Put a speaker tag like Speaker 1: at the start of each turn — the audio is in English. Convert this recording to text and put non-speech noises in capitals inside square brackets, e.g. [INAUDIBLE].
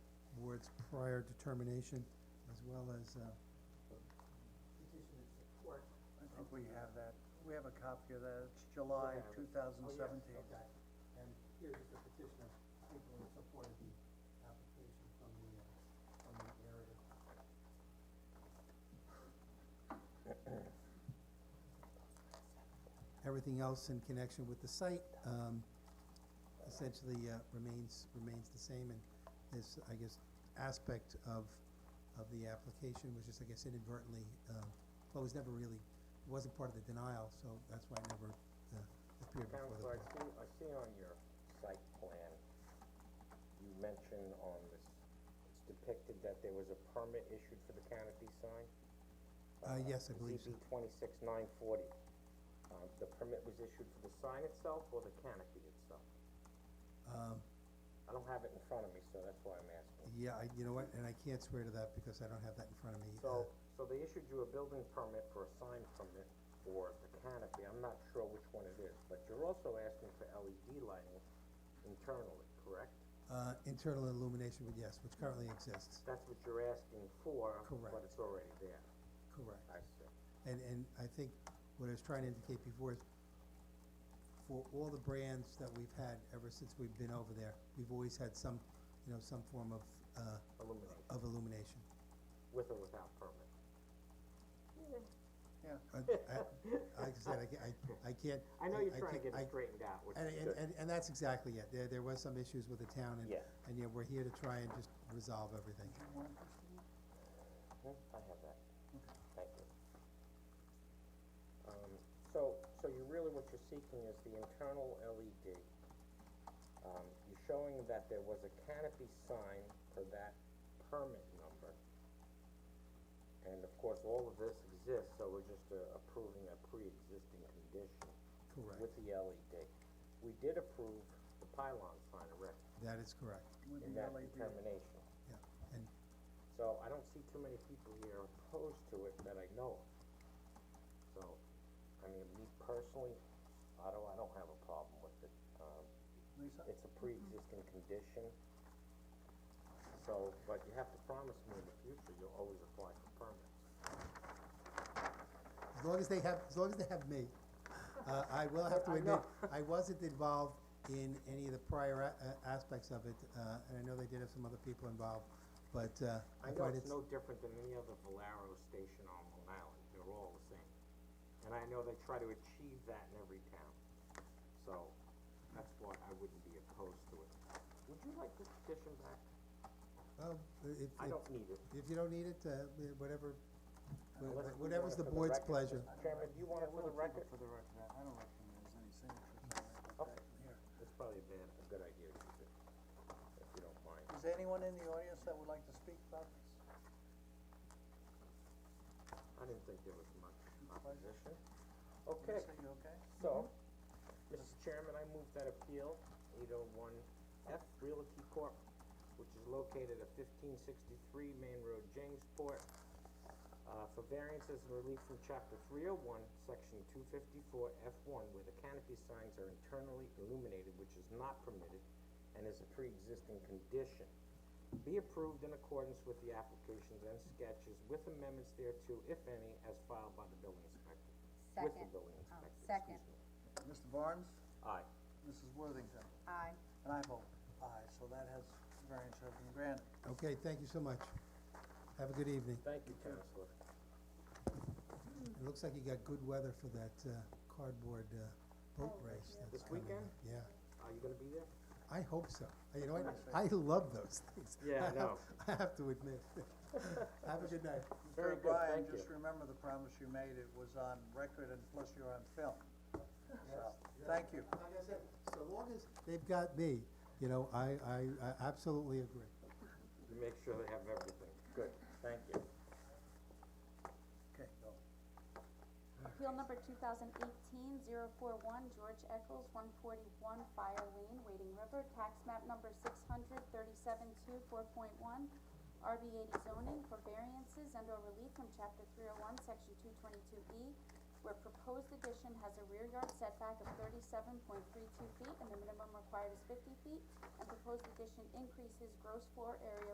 Speaker 1: its prior determination, as well as, uh,
Speaker 2: petition of support.
Speaker 3: I think we have that, we have a copy of that, it's July
Speaker 2: Okay.
Speaker 3: two thousand
Speaker 2: Oh, yes,
Speaker 3: seventeen.
Speaker 2: Okay, and here is the petition of people in support of the application from the, uh, from the area.
Speaker 1: everything else in connection with the site, um, essentially, uh, remains, remains the same, and this, I guess, aspect of, of the application was just, I guess, inadvertently, um, well, it was never really, it wasn't part of the denial, so that's why it never, uh, appeared before the board.
Speaker 4: Counselor, I see, I see on your site plan, you mentioned on this, it's depicted that there was a permit issued for the canopy sign?
Speaker 1: Uh, yes, I believe so.
Speaker 4: ZB twenty-six nine forty. Um, the permit was issued for the sign itself or the canopy itself?
Speaker 1: Um,
Speaker 4: I don't have it in front of me, so that's why I'm asking.
Speaker 1: yeah, I, you know what, and I can't swear to that because I don't have that in front of me. uh,
Speaker 4: So, so they issued you a building permit for a sign permit for the canopy, I'm not sure which one it is, but you're also asking for LED lighting internally, correct?
Speaker 1: Uh, internal illumination, but yes, which currently exists,
Speaker 4: That's what you're asking for,
Speaker 1: Correct.
Speaker 4: but it's already there.
Speaker 1: correct.
Speaker 4: I see.
Speaker 1: And, and I think what I was trying to indicate before is, for all the brands that we've had ever since we've been over there, we've always had some, you know, some form of, uh,
Speaker 4: Illumination,
Speaker 1: of illumination.
Speaker 4: with or without permit.
Speaker 3: Yeah,
Speaker 1: I, I, like I said, I, ca- I, I can't.
Speaker 4: [LAUGHS] I know you're trying to
Speaker 1: can't-
Speaker 4: get
Speaker 1: I-
Speaker 4: it straightened out, which
Speaker 1: And,
Speaker 4: is
Speaker 1: and,
Speaker 4: good.
Speaker 1: and, and that's exactly it, there, there was some issues with the town, and,
Speaker 4: Yeah.
Speaker 1: and, yeah, we're here to try and just resolve everything.
Speaker 3: do you want this thing?
Speaker 4: Hmm, I have that. Thank you. Um, so, so you really, what you're seeking is the internal LED. Um, you're showing that there was a canopy sign for that permit number. And of course, all of this exists, so we're just uh, approving a pre-existing condition. with
Speaker 1: Correct,
Speaker 4: the LED. We did approve the pylon sign erect
Speaker 1: that is correct,
Speaker 3: With
Speaker 4: in
Speaker 3: the E
Speaker 4: that
Speaker 3: LED.
Speaker 4: determination.
Speaker 1: yeah, and,
Speaker 4: So I don't see too many people here opposed to it that I know of. So, I mean, me personally, I don't, I don't have a problem with it. Um,
Speaker 3: Lisa,
Speaker 4: it's a pre-existing condition. So, but you have to promise me in the future, you'll always apply for permits.
Speaker 1: As long as they have, as long as they have me. Uh, I will have to
Speaker 4: I
Speaker 1: admit,
Speaker 4: know.
Speaker 1: I wasn't involved in any of the prior a- a- aspects of it, uh, and I know they did have some other people involved, but, uh,
Speaker 4: I
Speaker 1: I
Speaker 4: know
Speaker 1: find it's,
Speaker 4: it's no different than any other Valero station on Long Island, they're all the same. And I know they try to achieve that in every town, so that's why I wouldn't be opposed to it. Would you like this petition back?
Speaker 1: well, i- if,
Speaker 4: I
Speaker 1: if,
Speaker 4: don't need it.
Speaker 1: if you don't need it, uh, wh- whatever, wh-
Speaker 4: Unless
Speaker 1: wh-
Speaker 4: we
Speaker 1: whatever's the
Speaker 4: want it for the
Speaker 1: board's
Speaker 4: record.
Speaker 1: pleasure.
Speaker 4: Chairman, do you want it for the record?
Speaker 3: For the record, I I don't reckon there's any signatures on that.
Speaker 4: Okay.
Speaker 3: Here.
Speaker 4: That's probably a bad, a good idea to keep it, if you don't mind.
Speaker 3: Is there anyone in the audience that would like to speak about this?
Speaker 4: I didn't think there was much opposition. Okay,
Speaker 3: Lisa, you okay?
Speaker 4: so, Mr. Chairman, I move that appeal, eight oh one F Realty Corp., which is located at fifteen sixty-three Main Road, Jamesport, uh, for variances and relief from chapter three oh one, section two fifty-four F one, where the canopy signs are internally illuminated, which is not permitted and is a pre-existing condition. Be approved in accordance with the applications and sketches with amendments thereto, if any, as filed by the building inspector. With the
Speaker 5: Second.
Speaker 4: building
Speaker 5: Oh,
Speaker 4: inspector,
Speaker 5: second.
Speaker 4: excuse me.
Speaker 3: Mr. Barnes,
Speaker 4: Aye.
Speaker 3: Mrs. Worthington,
Speaker 5: Aye.
Speaker 3: and I vote aye, so that has variance has been granted.
Speaker 1: Okay, thank you so much. Have a good evening.
Speaker 4: Thank you, Counselor.
Speaker 1: It looks like you got good weather for that, uh, cardboard, uh, boat race that's
Speaker 4: Oh, This
Speaker 1: coming up.
Speaker 4: weekend?
Speaker 1: Yeah,
Speaker 4: Are you gonna be there?
Speaker 1: I hope so. You know, what? I love those things.
Speaker 4: Yeah, I
Speaker 1: have-
Speaker 4: know.
Speaker 1: [LAUGHS] I have to admit. [LAUGHS] Have a good night.
Speaker 4: Very
Speaker 3: Mr.
Speaker 4: good,
Speaker 3: O'Brien,
Speaker 4: thank
Speaker 3: just
Speaker 4: you.
Speaker 3: remember the promise you made, it was on record and plus you're on film. So, thank you.
Speaker 1: Like I said, so long as they've got me, you know, I, I, I absolutely agree.
Speaker 4: You make sure they have everything. Good, thank you.
Speaker 3: Okay, go.
Speaker 6: Appeal number 2018-041, George Eccles, one forty-one Fire Lane, Wading River, tax map number six hundred thirty-seven two four point one, RB eighty zoning for variances and or relief from chapter three oh one, section two twenty-two E, where proposed addition has a rear yard setback of thirty-seven point three two feet and the minimum required is fifty feet, and proposed addition increases gross floor area